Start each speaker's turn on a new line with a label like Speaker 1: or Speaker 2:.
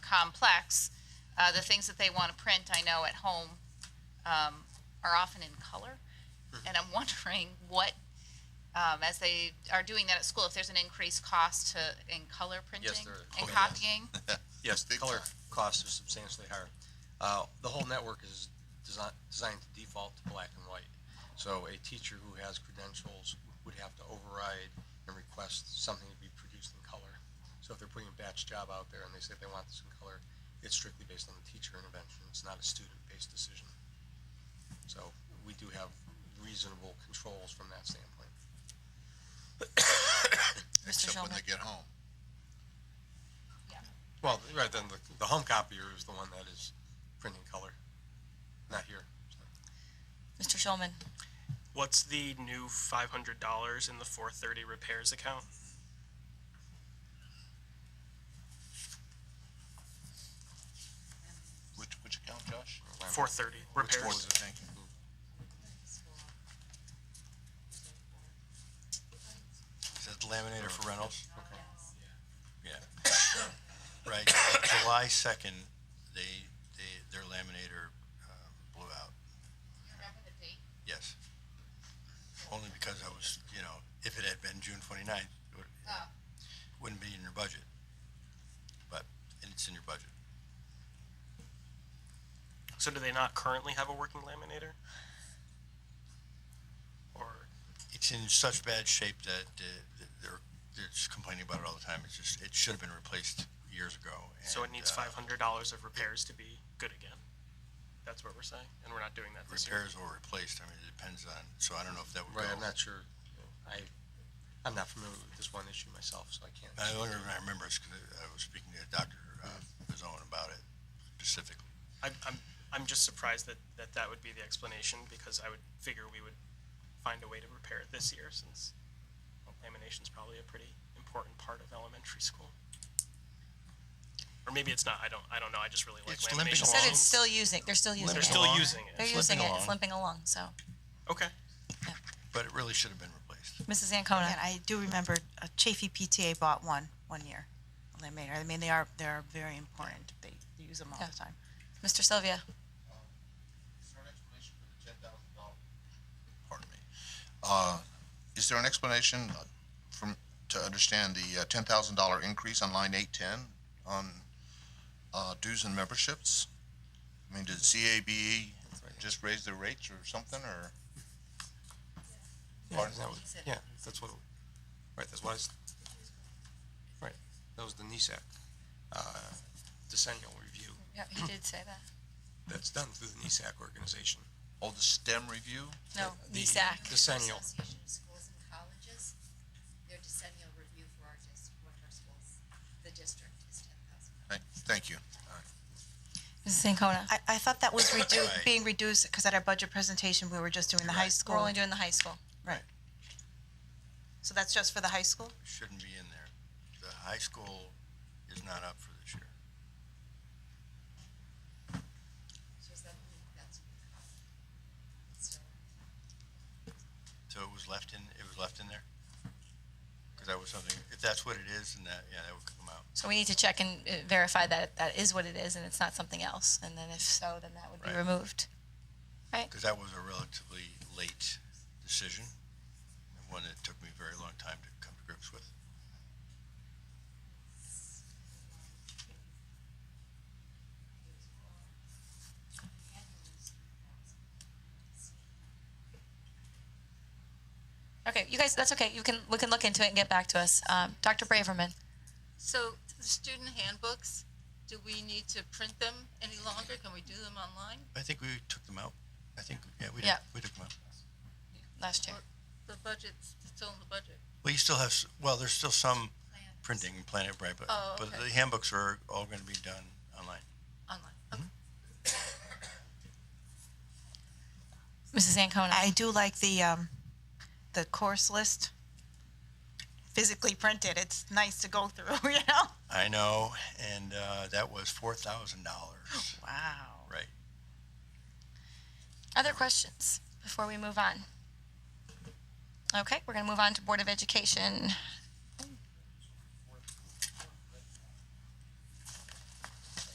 Speaker 1: complex. Uh, the things that they want to print, I know at home, um, are often in color.
Speaker 2: Mm-hmm.
Speaker 1: And I'm wondering what, um, as they are doing that at school, if there's an increased cost to, in color printing?
Speaker 2: there is.
Speaker 1: And
Speaker 2: Oh, yes.
Speaker 1: copying?
Speaker 2: Yes,
Speaker 3: Big
Speaker 2: color
Speaker 3: time.
Speaker 2: costs are substantially higher. Uh, The whole network is desi- designed to default to black and white. So a teacher who has credentials would have to override and request something to be produced in color. So if they're putting a batch job out there and they say they want this in color, it's strictly based on the teacher intervention. It's not a student-based decision. So we do have reasonable controls from that standpoint.
Speaker 3: except when
Speaker 1: Schulman?
Speaker 3: they get home.
Speaker 2: Well, right, then the, the home copier is the one that is printing color, not here. so.
Speaker 1: Mr. Shulman?
Speaker 4: What's the new five hundred dollars in the four thirty repairs account?
Speaker 3: Which, which account, Josh?
Speaker 4: Four thirty
Speaker 3: Which one
Speaker 4: repairs.
Speaker 3: was it? Thank you.
Speaker 5: Is that the laminator for Reynolds?
Speaker 2: Okay.
Speaker 5: Yeah. Right, July second, they, they, their laminator, um, blew out, yes. Only because I was, you know, if it had been June twenty-ninth, it would-
Speaker 3: Ah.
Speaker 5: wouldn't be in your budget. But it's in your budget.
Speaker 4: So do they not currently have a working laminator? Or
Speaker 5: It's in such bad shape that, uh, th- they're, they're just complaining about it all the time. It's just, it should have been replaced years ago.
Speaker 4: so it
Speaker 5: and,
Speaker 4: needs
Speaker 5: uh,
Speaker 4: five hundred dollars of repairs to be good again? That's what we're saying, and we're not doing that this year.
Speaker 5: uh, Repairs or replaced, I mean, it depends on, so I don't know if that would go.
Speaker 2: Right, I'm not sure. I, I'm not familiar with this one issue myself, so I can't.
Speaker 5: The only reason I remember is because I was speaking to Dr. uh, Bazone about it specifically.
Speaker 4: I'm, I'm, I'm just surprised that, that that would be the explanation, because I would figure we would find a way to repair it this year, since well, lamination's probably a pretty important part of elementary school. Or maybe it's not, I don't, I don't know, I just really like
Speaker 5: It's limping
Speaker 4: lamination.
Speaker 5: along.
Speaker 6: Said
Speaker 4: machines.
Speaker 6: it's still using, they're still using
Speaker 4: They're
Speaker 6: it.
Speaker 4: still using
Speaker 6: They're
Speaker 4: it.
Speaker 5: It's
Speaker 6: using
Speaker 5: limping
Speaker 6: it, it's
Speaker 5: along.
Speaker 6: limping along, so.
Speaker 4: Okay.
Speaker 5: But it really should have been replaced.
Speaker 6: Mrs. Ancona?
Speaker 7: And I do remember uh, Chafee PTA bought one, one year, a laminator. I mean, they are, they are very important. They they use them all
Speaker 6: Yeah.
Speaker 7: the time.
Speaker 6: Mr. Sylvia?
Speaker 3: Pardon me. Uh, is there an explanation uh, from, to understand
Speaker 5: uh,
Speaker 3: the ten thousand dollar increase on line eight ten on, uh, dues and memberships? I mean, did CABE E just raise their rates or something, or?
Speaker 2: Yeah, isn't that what- Yeah, that's what, right, that's what I, s- right, that was the NISAC, uh, decennial review.
Speaker 6: Yeah, he did say that.
Speaker 2: That's done through the NISAC organization.
Speaker 3: Oh, the STEM review?
Speaker 6: No,
Speaker 2: The
Speaker 6: NESAC.
Speaker 2: Decennial.
Speaker 8: Association of Schools and Colleges, their decennial review for our dis, what our schools, the district is ten thousand.
Speaker 3: Thank, thank you.
Speaker 6: Mrs. Ancona?
Speaker 7: I, I thought that was redu-
Speaker 5: Right.
Speaker 7: being reduced, because at our budget presentation, we were just doing the high
Speaker 6: We're
Speaker 7: school.
Speaker 6: only doing the high school.
Speaker 7: Right. So that's just for the high school?
Speaker 5: It Shouldn't be in there. The high school is not up for this year.
Speaker 8: So is that, that's what we call it. So,
Speaker 5: So it was left in, it was left in there? Because that was something, if that's what it is, then that, yeah, that would come out.
Speaker 6: So we need to check and uh, verify that that is what it is and it's not something else. And then if so, then that would be
Speaker 5: Right.
Speaker 6: removed.
Speaker 5: Because that was a relatively late decision, and one that took me a very long time to come to grips with.
Speaker 6: Okay, you guys, that's okay. You can, we can look into it and get back to us. Um, Dr. Braverman?
Speaker 9: So the student handbooks, do we need to print them any longer? Can we do them online?
Speaker 5: I think we took them out. I think, yeah, we did,
Speaker 6: Yeah.
Speaker 5: we took them out.
Speaker 6: Last year.
Speaker 9: The budget's still in the budget.
Speaker 5: Well, you still have, s- well, there's still some printing in Planet Bright, but,
Speaker 9: Oh,
Speaker 5: but
Speaker 9: okay.
Speaker 5: the handbooks are all gonna be done online.
Speaker 9: Online. Okay.
Speaker 6: Mrs. Ancona?
Speaker 7: I do like the, um, the course list physically printed. It's nice to go through, you know?
Speaker 5: I know, and, uh, that was four thousand dollars,
Speaker 7: Wow.
Speaker 5: right?
Speaker 6: Other questions before we move on? Okay, we're going to move on to Board of Education.